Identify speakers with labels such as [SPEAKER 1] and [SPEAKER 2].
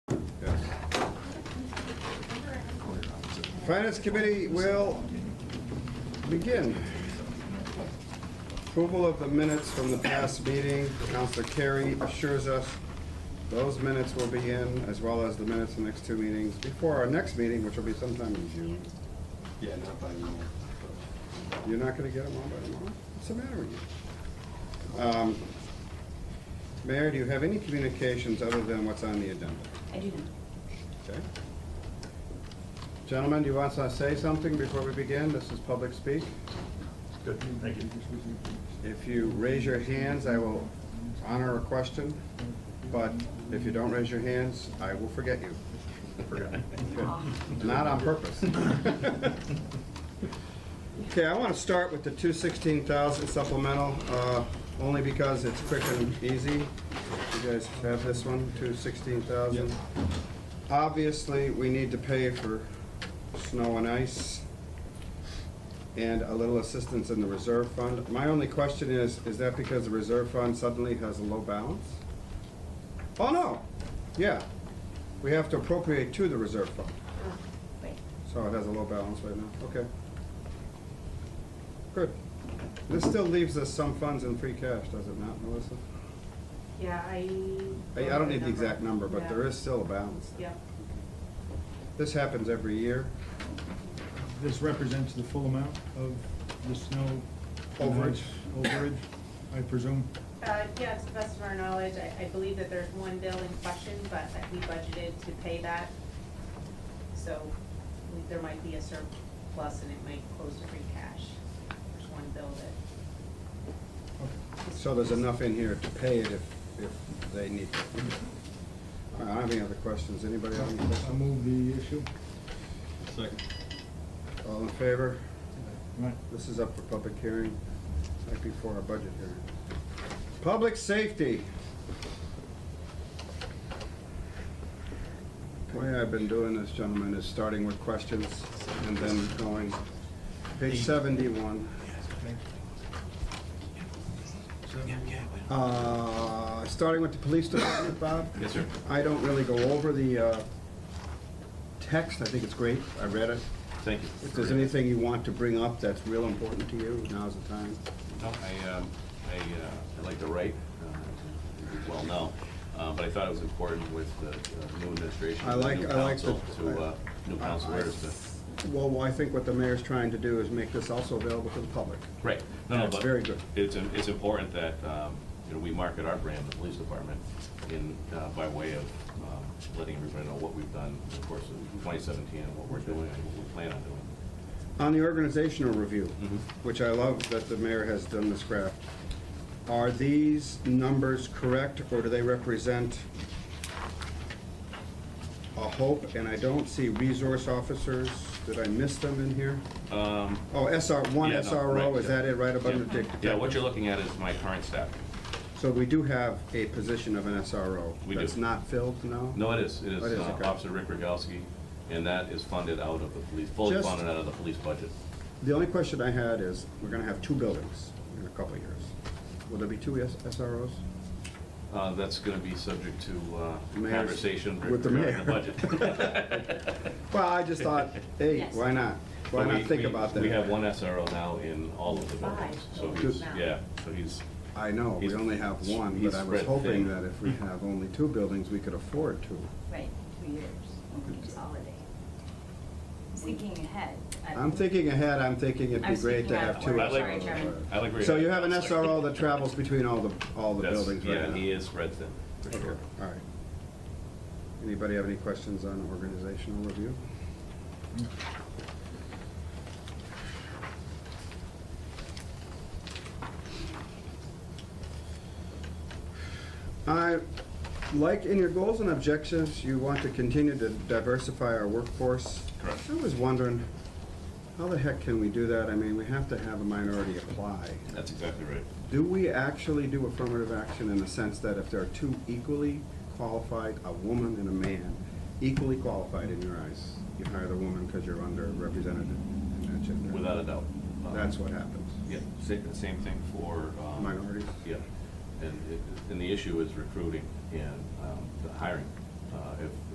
[SPEAKER 1] Finance Committee will begin. Approval of the minutes from the past meeting. Counselor Carey assures us those minutes will be in, as well as the minutes of the next two meetings, before our next meeting, which will be sometime in June.
[SPEAKER 2] Yeah, not by tomorrow.
[SPEAKER 1] You're not gonna get them all by tomorrow? What's the matter with you? Um, Mayor, do you have any communications other than what's on the agenda?
[SPEAKER 3] I do not.
[SPEAKER 1] Okay. Gentlemen, do you want to say something before we begin? This is public speak.
[SPEAKER 4] Good, thank you.
[SPEAKER 1] If you raise your hands, I will honor a question, but if you don't raise your hands, I will forget you.
[SPEAKER 4] Forgot.
[SPEAKER 1] Not on purpose. Okay, I want to start with the two sixteen thousand supplemental, uh, only because it's quick and easy. You guys have this one, two sixteen thousand. Obviously, we need to pay for snow and ice and a little assistance in the reserve fund. My only question is, is that because the reserve fund suddenly has a low balance? Oh, no, yeah. We have to appropriate to the reserve fund.
[SPEAKER 3] Oh, Wait,
[SPEAKER 1] So it has a low balance right now, okay. Good. This still leaves us some funds in free cash, does it not, Melissa?
[SPEAKER 3] yeah, I.
[SPEAKER 1] I, I don't need the exact number, but there
[SPEAKER 3] Yeah.
[SPEAKER 1] is still a balance.
[SPEAKER 3] Yeah,
[SPEAKER 1] This happens every year,
[SPEAKER 5] This represents the full amount of the snow. and
[SPEAKER 1] Overage.
[SPEAKER 5] ice Overage, I presume.
[SPEAKER 6] Uh, yeah, to the best of our knowledge, I, I believe that there's one bill in question, but that we budgeted to pay that. So we- there might be a surplus and it might close to free cash. There's one bill that.
[SPEAKER 1] so there's enough in here to pay it if, if they need to. All right, I don't have any other questions, anybody have any
[SPEAKER 5] I
[SPEAKER 1] questions?
[SPEAKER 5] move the issue.
[SPEAKER 2] Second.
[SPEAKER 1] All in favor?
[SPEAKER 5] Right.
[SPEAKER 1] This is up for public hearing, right before our budget hearing. Public safety. The way I've been doing this, gentlemen, is starting with questions and then going, page seventy-one. Uh, starting with the police department, Bob?
[SPEAKER 2] Yes, sir.
[SPEAKER 1] I don't really go over the, uh, text, I think it's great, I read it.
[SPEAKER 2] Thank you.
[SPEAKER 1] If there's anything you want to bring up that's real important to you, now's the time.
[SPEAKER 2] No, I, um, I, uh, I like to write, uh, as you well know, uh, but I thought it was important with the uh, new administration.
[SPEAKER 1] I
[SPEAKER 2] and the
[SPEAKER 1] like-
[SPEAKER 2] new
[SPEAKER 1] I like
[SPEAKER 2] council
[SPEAKER 1] the-
[SPEAKER 2] To, uh, new councilors to,
[SPEAKER 1] Well, I think what the mayor's trying to do is make this also available to the public.
[SPEAKER 2] right, no, no,
[SPEAKER 1] That's
[SPEAKER 2] but.
[SPEAKER 1] very good.
[SPEAKER 2] It's, im- it's important that, um, you know, we market our brand, the police department, in, uh, by way of, um, letting everybody know what we've done in the course of twenty seventeen and what we're doing and what we plan on doing.
[SPEAKER 1] On the organizational review,
[SPEAKER 2] Mhm.
[SPEAKER 1] which I love that the mayor has done this graph, are these numbers correct, or do they represent a hope? And I don't see resource officers, did I miss them in here?
[SPEAKER 2] Um,
[SPEAKER 1] Oh, SR, one
[SPEAKER 2] Yeah, no, right,
[SPEAKER 1] SRO, is
[SPEAKER 2] yeah.
[SPEAKER 1] that it, right above the
[SPEAKER 2] yeah,
[SPEAKER 1] dic-
[SPEAKER 2] yeah, what you're looking at is my current staff.
[SPEAKER 1] So we do have a position of an SRO.
[SPEAKER 2] We do.
[SPEAKER 1] That's not filled now?
[SPEAKER 2] No, it is, it is
[SPEAKER 1] Oh, It is,
[SPEAKER 2] uh,
[SPEAKER 1] okay.
[SPEAKER 2] Officer Rick Rogalski, and that is funded out of the police, fully
[SPEAKER 1] Just-
[SPEAKER 2] funded out of the police budget.
[SPEAKER 1] The only question I had is, we're gonna have two buildings in a couple of years. Will there be two S- SROs?
[SPEAKER 2] Uh, That's going to be subject to uh,
[SPEAKER 1] Mayor's-
[SPEAKER 2] conversation
[SPEAKER 1] with the
[SPEAKER 2] regarding the
[SPEAKER 1] mayor.
[SPEAKER 2] budget.
[SPEAKER 1] Well, I just thought, hey,
[SPEAKER 3] Yes.
[SPEAKER 1] why not? Why
[SPEAKER 2] But we-
[SPEAKER 1] not think
[SPEAKER 2] we-
[SPEAKER 1] about that?
[SPEAKER 2] We have one SRO now in all of the buildings,
[SPEAKER 3] Five
[SPEAKER 2] so
[SPEAKER 3] buildings
[SPEAKER 2] he's,
[SPEAKER 3] now.
[SPEAKER 2] yeah, so he's,
[SPEAKER 1] I know, we
[SPEAKER 2] He's-
[SPEAKER 1] only have one,
[SPEAKER 2] he's
[SPEAKER 1] but I was
[SPEAKER 2] spread
[SPEAKER 1] hoping
[SPEAKER 2] thin.
[SPEAKER 1] that if we have only two buildings, we could afford two.
[SPEAKER 3] right, two years, when we consolidate. Thinking ahead. I-
[SPEAKER 1] I'm thinking ahead, I'm thinking it'd
[SPEAKER 3] I
[SPEAKER 1] be
[SPEAKER 3] was
[SPEAKER 1] great to
[SPEAKER 3] thinking
[SPEAKER 1] have
[SPEAKER 3] out
[SPEAKER 1] two
[SPEAKER 2] loud. Sorry,
[SPEAKER 1] SROs.
[SPEAKER 3] Chairman.
[SPEAKER 2] I'll agree.
[SPEAKER 1] So you have an SRO that travels between all the, all the
[SPEAKER 2] That's-
[SPEAKER 1] buildings right now?
[SPEAKER 2] Yeah, he is spread thin, for
[SPEAKER 1] Okay,
[SPEAKER 2] sure.
[SPEAKER 1] all right. Anybody have any questions on organizational review? I, like in your goals and objectives, you want to continue to diversify our workforce.
[SPEAKER 2] Correct.
[SPEAKER 1] I was wondering, how the heck can we do that? I mean, we have to have a minority apply.
[SPEAKER 2] That's exactly right.
[SPEAKER 1] Do we actually do affirmative action in the sense that if there are two equally qualified, a woman and a man, equally qualified in your eyes, you hire the woman because you're underrepresented in that gender?
[SPEAKER 2] Without a doubt. Um,
[SPEAKER 1] That's what happens.
[SPEAKER 2] Yeah, same, the same thing for. um,
[SPEAKER 1] Minorities?
[SPEAKER 2] Yeah, and, it- and the issue is recruiting and um, the hiring. Uh, If,